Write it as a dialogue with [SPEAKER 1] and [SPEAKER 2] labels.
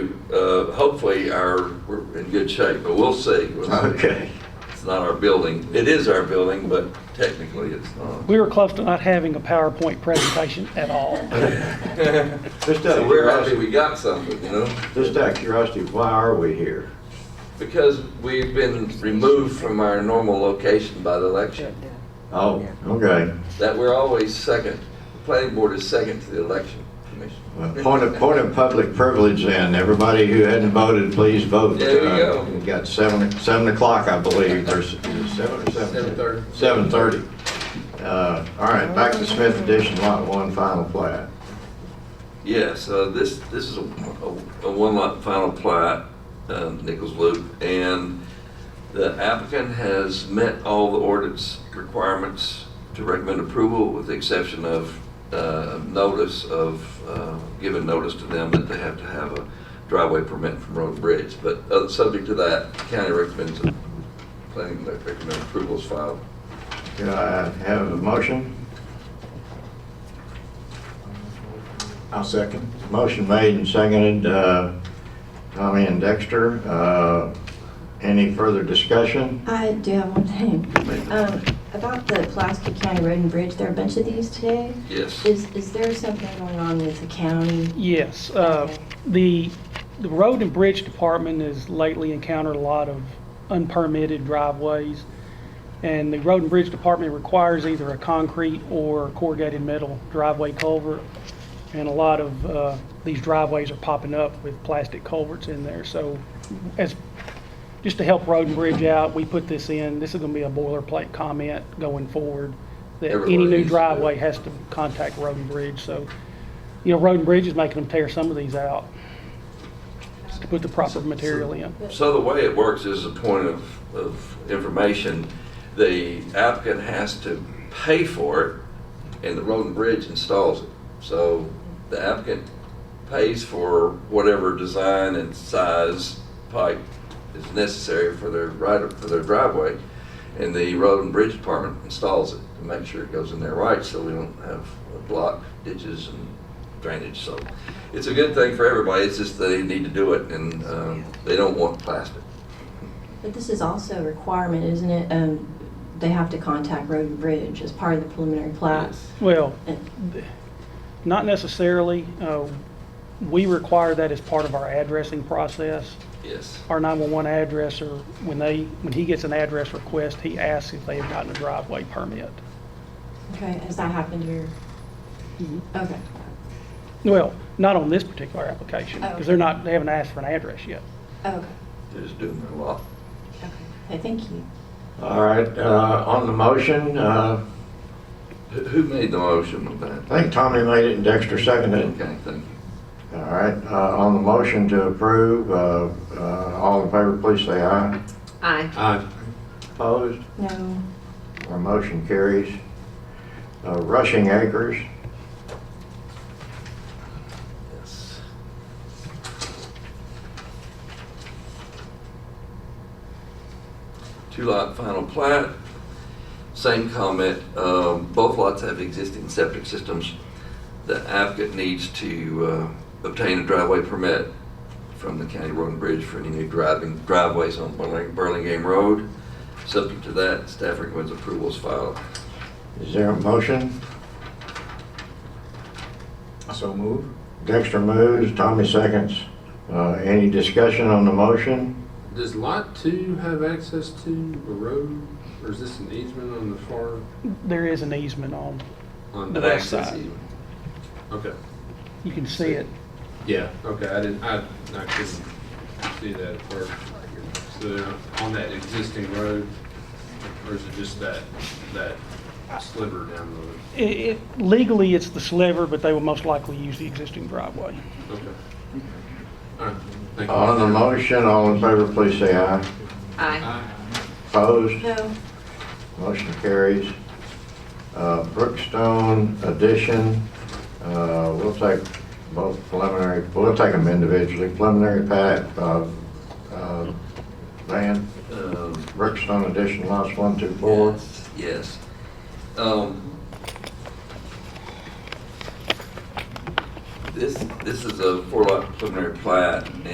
[SPEAKER 1] uh, hopefully our, we're in good shape, but we'll see. We'll see.
[SPEAKER 2] Okay.
[SPEAKER 1] It's not our building. It is our building, but technically it's not.
[SPEAKER 3] We were close to not having a PowerPoint presentation at all.
[SPEAKER 2] Just out
[SPEAKER 1] So
[SPEAKER 2] of
[SPEAKER 1] we're happy
[SPEAKER 2] curiosity,
[SPEAKER 1] we got something, you know?
[SPEAKER 2] just out of curiosity, why are we here?
[SPEAKER 1] Because we've been removed from our normal location by the election.
[SPEAKER 2] Oh, okay.
[SPEAKER 1] That we're always second. The planning board is second to the election commission.
[SPEAKER 2] Well, Point of, point of public privilege then, everybody who hadn't voted, please vote.
[SPEAKER 1] There you
[SPEAKER 2] Uh,
[SPEAKER 1] go.
[SPEAKER 2] We've got seven, seven o'clock, I believe, or s- is it seven or seven?
[SPEAKER 1] Seven thirty.
[SPEAKER 2] Seven thirty. Uh, all right, back to Smith Edition Lot One Final Plat.
[SPEAKER 1] Yes, uh, this, this is a a- a one lot final plat, uh, Nichols Loop, and the applicant has met all the ordinance requirements to recommend approval with the exception of uh, notice of, uh, given notice to them that they have to have a driveway permit from Road and Bridge. But uh, subject to that, county recommends, planning recommend approval is filed.
[SPEAKER 2] Could I have a motion? I'll second. Motion made and seconded, uh, Tommy and Dexter. Uh, Any further discussion?
[SPEAKER 4] I do have one
[SPEAKER 1] Maybe.
[SPEAKER 4] thing. Um, about the Pulaski County Road and Bridge, there are a bunch of these today.
[SPEAKER 1] Yes.
[SPEAKER 4] Is, is there something going on with the county?
[SPEAKER 3] Yes, uh, the, the road and bridge department has lately encountered a lot of unpermitted driveways. And the road and bridge department requires either a concrete or corrugated metal driveway culvert. And a lot of, uh, these driveways are popping up with plastic culverts in there. So as, just to help road and bridge out, we put this in. This is gonna be a boilerplate comment going forward. That any
[SPEAKER 1] Everywhere it
[SPEAKER 3] new
[SPEAKER 1] needs to go.
[SPEAKER 3] driveway has to contact road and bridge. So you know, road and bridge is making them tear some of these out just to put the proper material in.
[SPEAKER 1] So the way it works is a point of, of information. The applicant has to pay for it and the road and bridge installs it. So the applicant pays for whatever design and size pipe is necessary for their right, for their driveway. And the road and bridge department installs it to make sure it goes in there right, so we don't have block ditches and drainage. So it's a good thing for everybody, it's just they need to do it and, um, they don't want plastic.
[SPEAKER 4] But this is also a requirement, isn't it? Um, they have to contact Road and Bridge as part of the preliminary plat.
[SPEAKER 3] Well,
[SPEAKER 4] And-
[SPEAKER 3] not necessarily. Uh, We require that as part of our addressing process.
[SPEAKER 1] Yes.
[SPEAKER 3] Our 911 addresser, when they, when he gets an address request, he asks if they have gotten a driveway permit.
[SPEAKER 4] Okay, has that happened here? Okay,
[SPEAKER 3] Well, not on this particular application,
[SPEAKER 4] Oh,
[SPEAKER 3] because they're not, they haven't asked for an address yet.
[SPEAKER 4] okay,
[SPEAKER 1] They're just doing their lot.
[SPEAKER 4] okay. Hey, thank you.
[SPEAKER 2] All right, uh, on the motion, uh,
[SPEAKER 1] Who, who made the motion of that?
[SPEAKER 2] I think Tommy made it and Dexter seconded it.
[SPEAKER 1] Okay, thank you.
[SPEAKER 2] All right, uh, on the motion to approve, uh, uh, all in favor, please say aye.
[SPEAKER 5] Aye.
[SPEAKER 2] Aye. Opposed?
[SPEAKER 4] No,
[SPEAKER 2] Our motion carries. Uh, Rushing Acres,
[SPEAKER 1] Yes. Two lot final plat, same comment, um, both lots have existing septic systems. The applicant needs to, uh, obtain a driveway permit from the county road and bridge for any new driving, driveways on Burling- Burlingame Road. Subject to that, staff recommends approval is filed.
[SPEAKER 2] is there a motion? So moved. Dexter moves, Tommy seconds. Uh, Any discussion on the motion?
[SPEAKER 6] Does lot two have access to a road, or is this an easement on the far,
[SPEAKER 3] There is an easement on,
[SPEAKER 6] on
[SPEAKER 3] The
[SPEAKER 6] the,
[SPEAKER 3] west
[SPEAKER 1] Access
[SPEAKER 3] side.
[SPEAKER 1] even.
[SPEAKER 6] okay,
[SPEAKER 3] you can see it.
[SPEAKER 6] yeah, okay, I didn't, I, I couldn't see that at first. So, on that existing road, or is it just that, that sliver down the road?
[SPEAKER 3] It- it- Legally, it's the sliver, but they will most likely use the existing driveway.
[SPEAKER 6] Okay. All right, thank you.
[SPEAKER 2] On the motion, all in favor, please say aye.
[SPEAKER 5] Aye.
[SPEAKER 6] Aye.
[SPEAKER 2] Opposed?
[SPEAKER 4] no,
[SPEAKER 2] Motion carries. Uh, Brookstone addition, uh, we'll take both preliminary, we'll take them individually. Preliminary plat, uh, uh, Van,
[SPEAKER 1] Um,
[SPEAKER 2] Brookstone addition, lots one, two, four.
[SPEAKER 1] Yes, Yes. Um, This, this is a four lot preliminary plat